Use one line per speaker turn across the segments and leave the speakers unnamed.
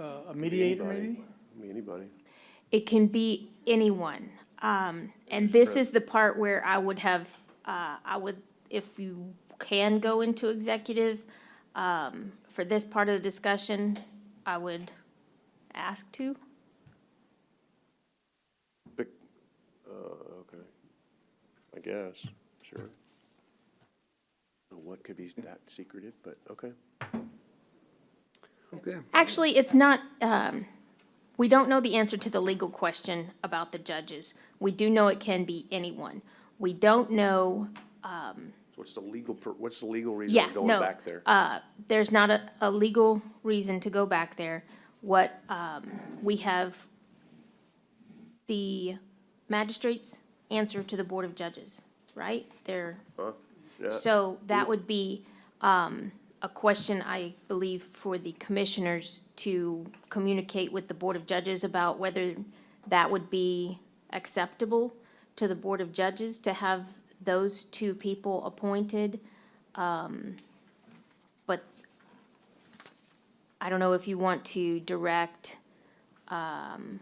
uh, a mediator maybe?
I mean, anybody.
It can be anyone. Um, and this is the part where I would have, uh, I would, if you can go into executive, um, for this part of the discussion, I would ask to.
Pick, uh, okay, I guess, sure. What could be that secretive, but, okay.
Okay,
Actually, it's not, um, we don't know the answer to the legal question about the judges. We do know it can be anyone. We don't know,
So What's the legal, per- what's the legal reason
yeah,
for going
no.
back there?
Uh, there's not a, a legal reason to go back there. What, um, we have the magistrate's answer to the Board of Judges, right? They're
Yeah,
so that would be um, a question, I believe, for the commissioners to communicate with the Board of Judges about whether that would be acceptable to the Board of Judges to have those two people appointed. Um, But I don't know if you want to direct,
And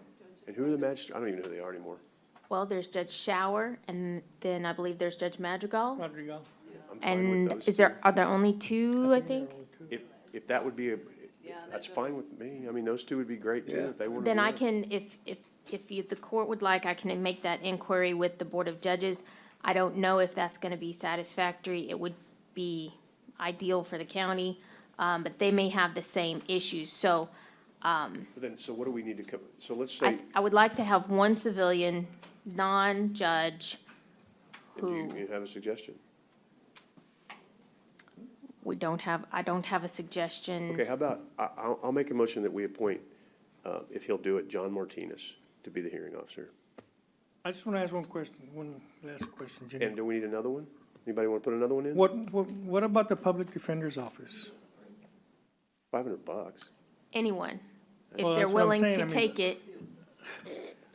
who are the magistrate, I don't even know who they are anymore.
well, there's Judge Shower, and then I believe there's Judge Madrigal.
Rodrigo?
I'm fine with
And
those
is there, are there only two, I think?
two. If, if that would be, a that's fine with me, I mean, those two would be great too,
Yeah.
if they wanted to.
Then
do
I
that.
can, if, if, if you, the court would like, I can make that inquiry with the Board of Judges. I don't know if that's gonna be satisfactory. It would be ideal for the county, um, but they may have the same issues. So
But Then, so what do we need to come, so let's say,
I, I would like to have one civilian, non-judge,
do you
who
you have a suggestion?
we don't have, I don't have a suggestion.
Okay, how about, I, I'll, I'll make a motion that we appoint, uh, if he'll do it, John Martinez to be the hearing officer.
I just want to ask one question, one last question,
And
Jenny.
do we need another one? Anybody want to put another one in?
What, what, what about the public defender's office?
Five hundred bucks.
Anyone, if
Well,
they're
that's what I'm
willing
saying. I
to
mean-
take it.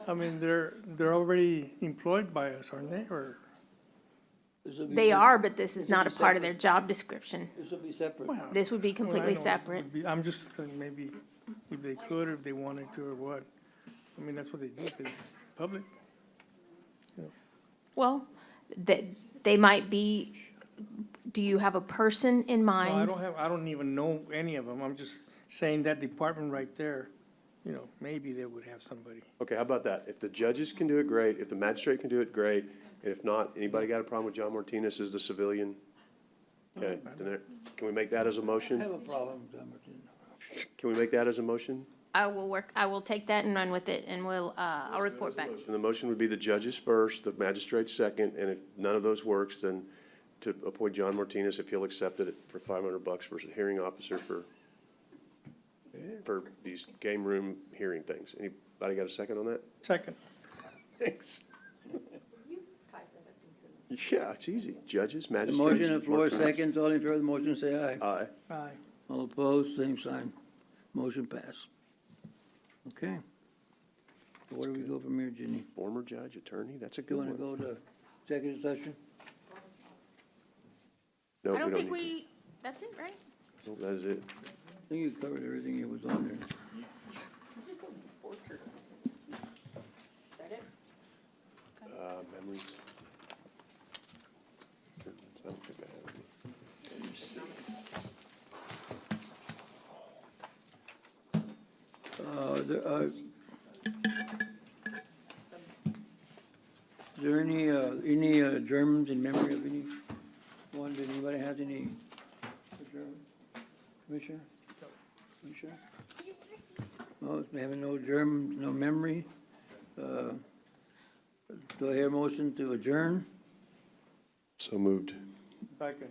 I mean, they're, they're already employed by us, aren't they, or?
this will be.
They
sep-
are, but this is
Should
not a
be
part of their job description.
This will be separate.
well,
This would be
well, I
completely
don't know. It
separate.
would be- I'm just saying maybe if they could, or if they wanted to, or what. I mean, that's what they do, they public.
Well, that, they might be, do you have a person in
No, I
mind?
don't have, I don't even know any of them. I'm just saying that department right there, you know, maybe they would have somebody.
Okay, how about that? If the judges can do it, great. If the magistrate can do it, great. And if not, anybody got a problem with John Martinez as the civilian? Okay, then there, can we make that as a
I have
motion?
a problem, John Martino.
Can we make that as a motion?
I will work, I will take that and run with it, and we'll, uh, I'll report back.
And the motion would be the judges first, the magistrate second, and if none of those works, then to appoint John Martinez if he'll accept it for five hundred bucks for a hearing officer for, for these game room hearing things. Anybody got a second on that?
Second,
Thanks. Yeah, it's easy. Judges,
The
magistrates.
motion on the floor,
Martinez.
seconds, all in favor of the motion, say aye.
Aye.
aye.
All opposed, same sign. Motion passed. Okay. So where do we go from here, Ginny?
Former judge, attorney, that's a
You
good
want to
one.
go to executive session?
No,
I don't
we
think
don't need
we, that's it, right?
to. That is it.
I think you covered everything that was on there.
Uh, memories. I don't think I have any.
Uh, there are- Is there any, uh, any uh, Germans in memory of any, one, did anybody have any German? Commissioner? Commissioner? No, they have no German, no memory. Uh, Do I hear a motion to adjourn?
So moved.
Second.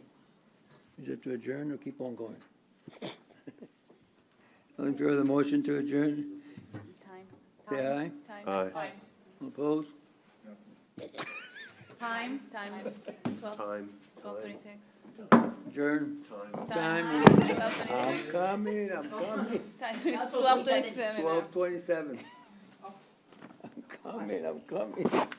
Is it to adjourn or keep on going? All in favor of the motion to adjourn,
Time.
say aye.
Aye.
Opposed?
Time, time, twelve,
Time.
twelve thirty-six.
Adjourn. Time is-
Twelve
I'm
twenty-six,
coming, I'm coming.
time, twelve twenty-seven.
Oh. Twelve twenty-seven. I'm coming, I'm coming.